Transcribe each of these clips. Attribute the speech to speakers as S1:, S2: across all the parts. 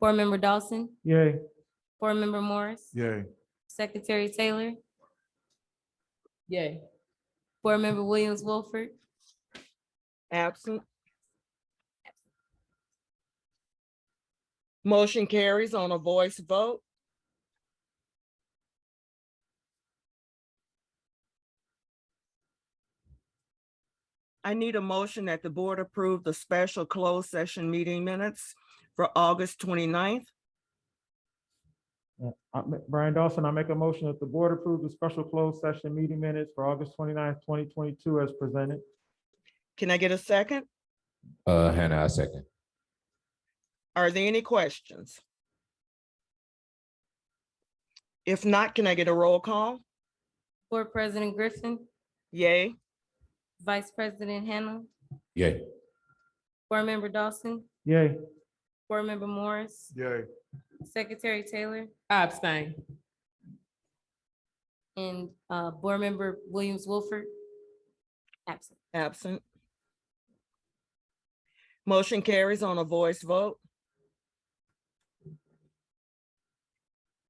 S1: Board Member Dawson,
S2: Yay.
S1: Board Member Morris,
S2: Yay.
S1: Secretary Taylor,
S3: Yay.
S1: Board Member Williams Wilford,
S3: Absent. Motion carries on a voice vote. I need a motion that the board approve the special closed session meeting minutes for August 29th.
S2: I ma- Brian Dawson, I make a motion that the board approve the special closed session meeting minutes for August 29th, twenty-two as presented.
S3: Can I get a second?
S4: Uh, Hannah, I second.
S3: Are there any questions? If not, can I get a roll call?
S1: Board President Griffin,
S3: Yay.
S1: Vice President Hannah,
S4: Yay.
S1: Board Member Dawson,
S2: Yay.
S1: Board Member Morris,
S2: Yay.
S1: Secretary Taylor,
S5: I abstain.
S1: and uh, Board Member Williams Wilford. Absent.
S3: Absent. Motion carries on a voice vote.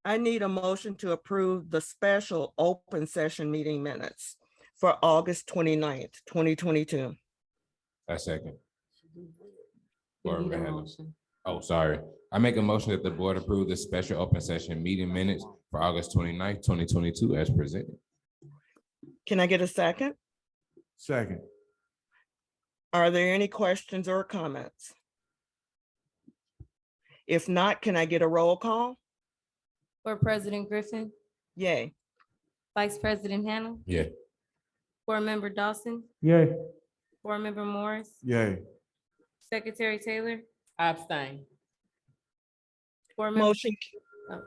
S3: I need a motion to approve the special open session meeting minutes for August 29th, twenty-two.
S4: I second.
S5: We
S4: Board
S5: need a
S4: Member Hannah.
S5: motion.
S4: Oh, sorry. I make a motion that the board approve the special open session meeting minutes for August 29th, twenty-two as presented.
S3: Can I get a second?
S2: Second.
S3: Are there any questions or comments? If not, can I get a roll call?
S1: Board President Griffin,
S3: Yay.
S1: Vice President Hannah.
S4: Yeah.
S1: Board Member Dawson,
S2: Yay.
S1: Board Member Morris,
S2: Yay.
S1: Secretary Taylor,
S5: I abstain.
S1: Board Member,
S3: Motion.
S1: Oh.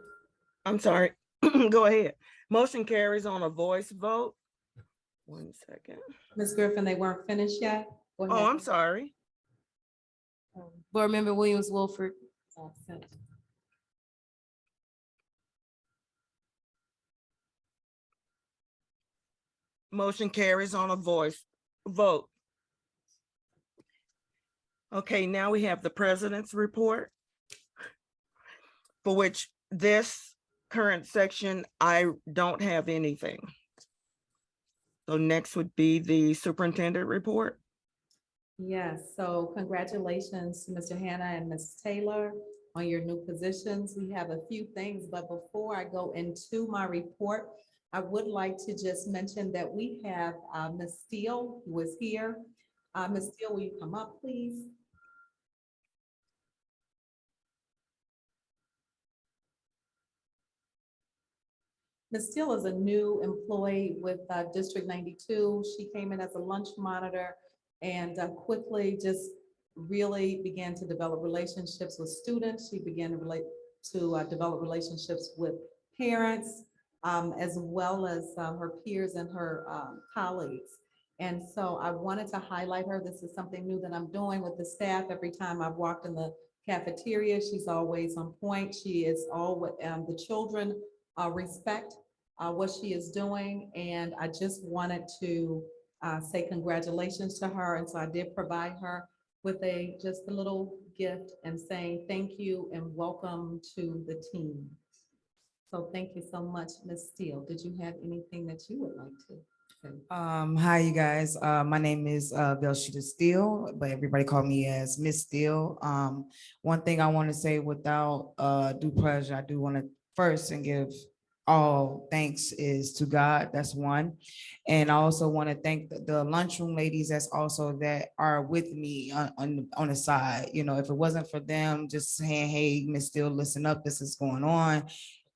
S3: I'm sorry, go ahead. Motion carries on a voice vote. One second.
S6: Ms. Griffin, they weren't finished yet? Go
S3: Oh,
S6: ahead. Um,
S3: I'm sorry.
S1: Board Member Williams Wilford,
S6: Absent.
S3: Motion carries on a voice vote. Okay, now we have the president's report. For which this current section, I don't have anything. So next would be the superintendent report.
S6: Yes, so congratulations to Mr. Hannah and Ms. Taylor on your new positions. We have a few things, but before I go into my report, I would like to just mention that we have uh, Ms. Steele, who is here. Uh, Ms. Steele, will you come up, please? Ms. Steele is a new employee with uh, District 92. She came in as a lunch monitor and uh, quickly just really began to develop relationships with students. She began to relate to uh, develop relationships with parents um, as well as uh, her peers and her um, colleagues. And so I wanted to highlight her. This is something new that I'm doing with the staff. Every time I've walked in the cafeteria, she's always on point. She is all, um, the children uh, respect uh, what she is doing. And I just wanted to uh, say congratulations to her. And so I did provide her with a, just a little gift and saying thank you and welcome to the team. So thank you so much, Ms. Steele. Did you have anything that you would like to say?
S7: Um, hi, you guys. Uh, my name is, uh, Velshita Steele, but everybody call me as Miss Steele. Um, one thing I want to say without, uh, due pleasure, I do want to first and give all thanks is to God. That's one. And I also want to thank the- the lunchroom ladies that's also that are with me on, on, on the side. You know, if it wasn't for them just saying, hey, Miss Steele, listen up, this is going on.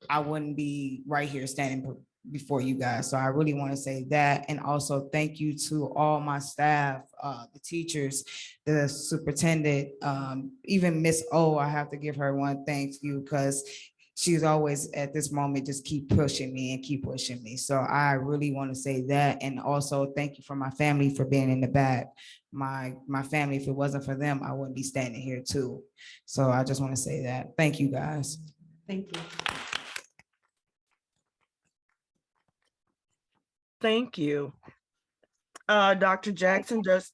S7: I wouldn't be right here standing before you guys. So I really want to say that. And also thank you to all my staff, uh, the teachers, the superintendent, um, even Miss O, I have to give her one thank you because she's always at this moment, just keep pushing me and keep pushing me. So I really want to say that. And also thank you for my family for being in the back. My, my family, if it wasn't for them, I wouldn't be standing here too. So I just want to say that. Thank you, guys.
S6: Thank you.
S3: Thank you. Uh, Dr. Jackson, does,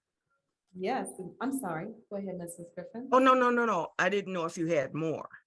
S6: Yes, I'm sorry. Go ahead, Mrs. Griffin.
S3: oh, no, no, no, no. I didn't know if you had more.